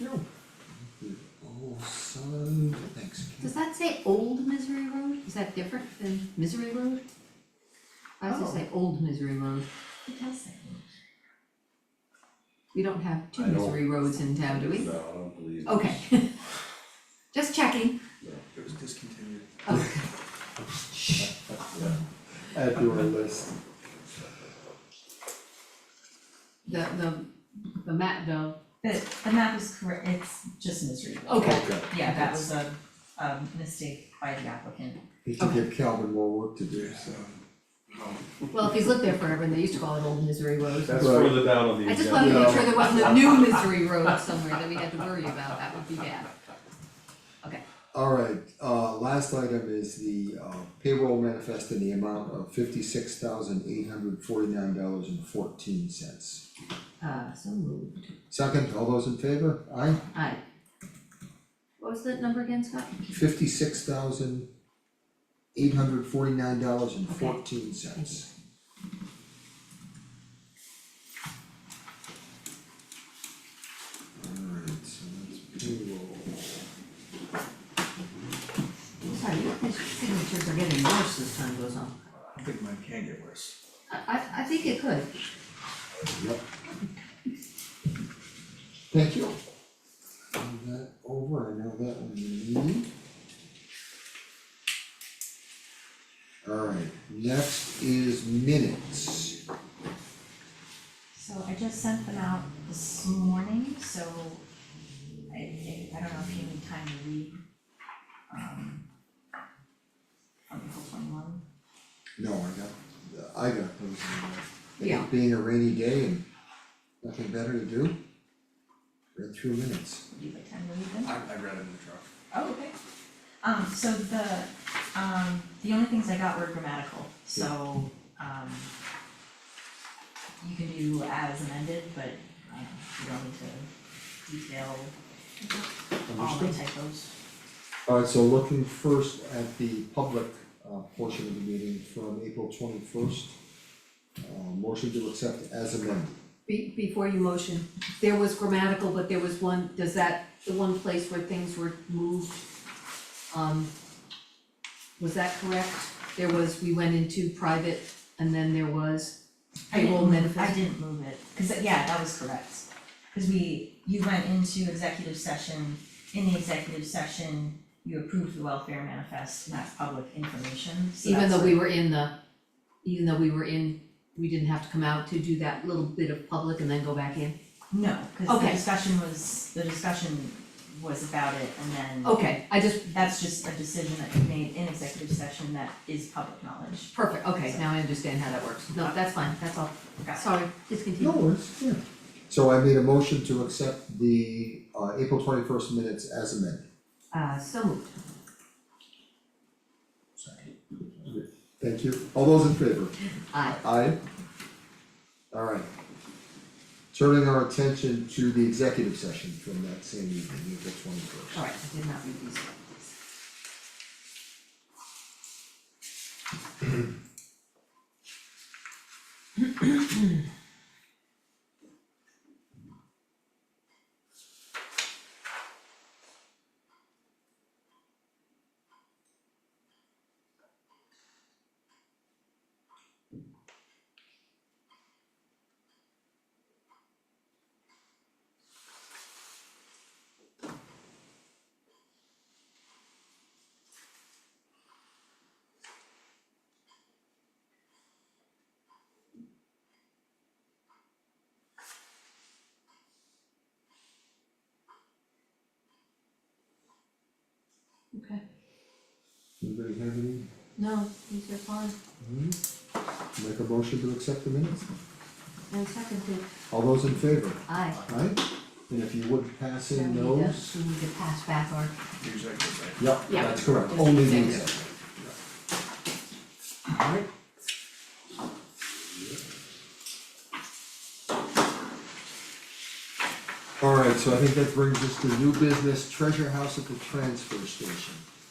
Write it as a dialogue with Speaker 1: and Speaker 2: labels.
Speaker 1: No. The old Oh, son, thanks,
Speaker 2: Does that say Old Misery Road? Is that different than Misery Road? I was
Speaker 1: Oh.
Speaker 2: gonna say Old Misery Road.
Speaker 3: It does say.
Speaker 2: We don't have two
Speaker 4: I don't-
Speaker 2: misery roads in town, do we?
Speaker 4: No, I don't believe.
Speaker 2: Okay. Just checking.
Speaker 4: No,
Speaker 1: it was discontinued.
Speaker 2: Oh,
Speaker 4: yeah.
Speaker 5: add to our list.
Speaker 2: the, the, the map, the,
Speaker 3: The, the map is correct, it's just misreadable.
Speaker 2: okay,
Speaker 3: Yeah, that was a, um, mistake by the applicant.
Speaker 5: He can give Calvin more work to do,
Speaker 1: There's,
Speaker 5: so.
Speaker 1: um, um,
Speaker 2: well, if he's lived there forever, and they used to call it Old Misery Road.
Speaker 4: That's
Speaker 5: Right.
Speaker 4: further down on the
Speaker 2: I just
Speaker 4: agenda.
Speaker 2: wanted to make sure there wasn't a new misery road somewhere that we had to worry about, that would be bad.
Speaker 5: Alright, uh, last item is the uh, payroll manifest in the amount of fifty-six thousand eight hundred forty-nine dollars and fourteen cents.
Speaker 2: Uh, so moved.
Speaker 5: Second, all those in favor? Aye,
Speaker 2: Aye. What was that number again, Scott?
Speaker 5: fifty-six thousand eight hundred forty-nine dollars and fourteen cents. Alright, so that's payroll.
Speaker 2: I'm Sorry, your signatures are getting worse as time goes on.
Speaker 1: I think mine can get worse.
Speaker 2: I, I, I think it could.
Speaker 5: Yep. Thank you. Move that over, I know that one you need. Alright, next is minutes.
Speaker 3: So I just sent them out this morning, so I, I, I don't know if you need time to read. Um. Article twenty-one.
Speaker 5: No, I got, I got those in there. It
Speaker 2: Yeah.
Speaker 5: Being a rainy day and nothing better to do. Read through minutes.
Speaker 3: Would you like time to read them?
Speaker 1: I, I read it in the truck.
Speaker 3: Oh, okay. Um, so the, um, the only things I got were grammatical, so, um, you can do as amended, but, um, you don't need to detail all the
Speaker 5: Understood.
Speaker 3: typos.
Speaker 5: Alright, so looking first at the public uh portion of the meeting from April twenty first. Uh motion to accept as amended.
Speaker 2: Be, before you motion, there was grammatical, but there was one, does that, the one place where things were moved? Um, was that correct? There was, we went into private and then there was
Speaker 3: I didn't
Speaker 2: payroll
Speaker 3: move- I
Speaker 2: manifest.
Speaker 3: didn't move it, cause that- yeah, that was correct. Cause we, you went into executive session, in the executive session, you approved the welfare manifest, and that's public information, so
Speaker 2: Even
Speaker 3: that's
Speaker 2: though
Speaker 3: what-
Speaker 2: we were in the, even though we were in, we didn't have to come out to do that little bit of public and then go back in?
Speaker 3: No, cause the
Speaker 2: Okay.
Speaker 3: discussion was, the discussion was about it and then
Speaker 2: Okay, I just,
Speaker 3: that's just a decision that you made in executive session that is public knowledge.
Speaker 2: perfect, okay, now I understand how that works. No, that's fine, that's all.
Speaker 3: Got it.
Speaker 2: Sorry, discontinue.
Speaker 5: No worries, yeah. So I made a motion to accept the uh April twenty first minutes as amended.
Speaker 2: Uh, so moved.
Speaker 5: Thank you. All those in favor?
Speaker 2: Aye.
Speaker 5: Aye. Alright. Turning our attention to the executive session from that same evening, April twenty first.
Speaker 2: Alright, I did not read these. Okay,
Speaker 5: Anybody have any?
Speaker 2: no, these are fine,
Speaker 5: Make a motion to accept the minutes.
Speaker 2: and seconded,
Speaker 5: All those in favor?
Speaker 2: aye.
Speaker 5: Right, and if you would pass
Speaker 2: So we
Speaker 5: in
Speaker 2: need to-
Speaker 5: those.
Speaker 2: We need to pass back our,
Speaker 1: Usually I could say.
Speaker 5: Yep,
Speaker 2: Yeah.
Speaker 5: that's correct, only the
Speaker 2: Yeah.
Speaker 5: executive. Alright. Alright, so I think that brings us to new business, treasure house at the transfer station.